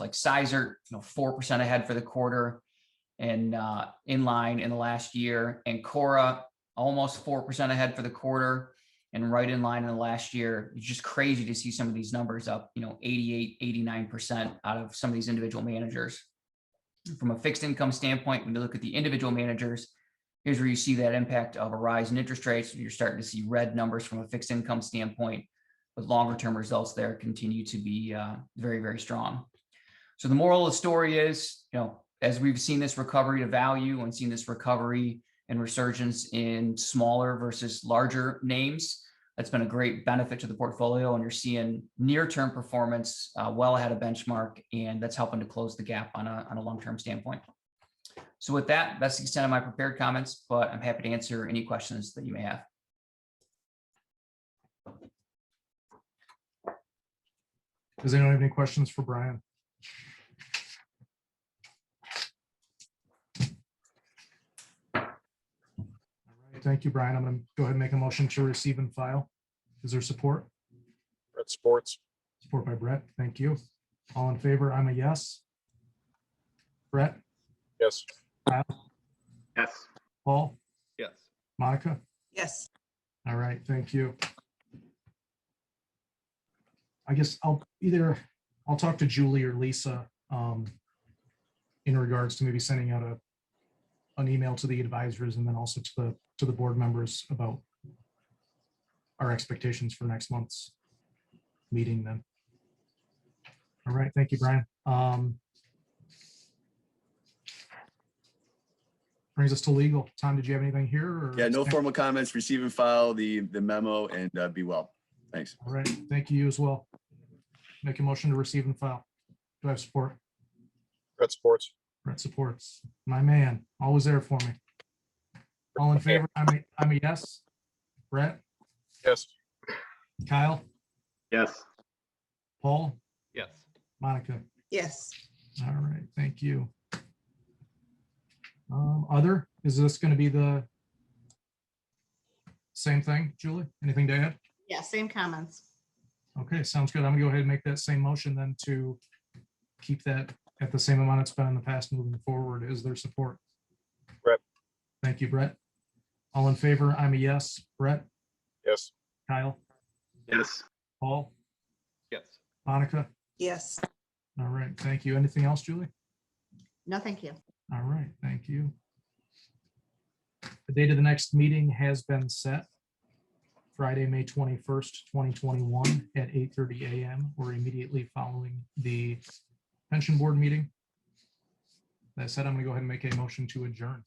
like Sizer, you know, four percent ahead for the quarter and uh, in line in the last year. And Cora almost four percent ahead for the quarter and right in line in the last year. It's just crazy to see some of these numbers up, you know, 88, 89% out of some of these individual managers. From a fixed income standpoint, when you look at the individual managers, here's where you see that impact of a rise in interest rates. You're starting to see red numbers from a fixed income standpoint, but longer term results there continue to be uh, very, very strong. So the moral of the story is, you know, as we've seen this recovery to value and seen this recovery and resurgence in smaller versus larger names, that's been a great benefit to the portfolio and you're seeing near-term performance uh, well ahead of benchmark and that's helping to close the gap on a, on a long-term standpoint so with that that's the extent of my prepared comments but i'm happy to answer any questions that you may have Does anyone have any questions for Brian? All right, Thank you, Brian. I'm going to go ahead and make a motion to receive and file. Is there support? Brett Sports. Support by Brett. Thank you. All in favor? I'm a yes. Brett, Yes. Yes. Paul, Yes. Monica? Yes, All right, thank you. I guess I'll either, I'll talk to Julie or Lisa um, in regards to maybe sending out a, an email to the advisors and then also to the, to the board members about our expectations for next month's meeting then. All right, thank you, Brian. Um, Brings us to legal. Tom, did you have anything here? or- Yeah, no formal comments, receive and file the, the memo and uh, be well. Thanks. All right, thank you as well. Make a motion to receive and file. Do I have support? Brett Sports. Brett supports. My man, always there for me. All in favor? I'm a, I'm a yes. Brett, Yes. Kyle, Yes. Paul, Yes. Monica. yes, All right, thank you. Um, other, is this gonna be the same thing, Julie? Anything to add? Yeah, same comments. Okay, sounds good. I'm gonna go ahead and make that same motion then to keep that at the same amount it's been in the past moving forward. Is there support? Brett. Thank you, Brett. All in favor? I'm a yes. Brett, Yes. Kyle, Yes. Paul, Yes. Monica. yes, All right, thank you. Anything else, Julie? No, thank you. All right, thank you. The date of the next meeting has been set. Friday, May twenty-first, twenty twenty-one at eight thirty AM or immediately following the pension board meeting. That said, I'm gonna go ahead and make a motion to adjourn.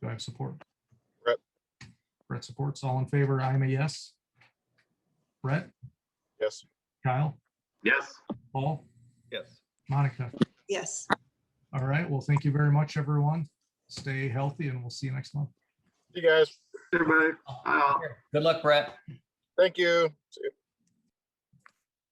Do I have support? Brett. Brett supports. All in favor? I'm a yes. Brett, Yes. Kyle, Yes. Paul, Yes. Monica. yes. All right, well, thank you very much, everyone. Stay healthy and we'll see you next month. You guys. Everybody. Uh, good luck brett Thank you. See you.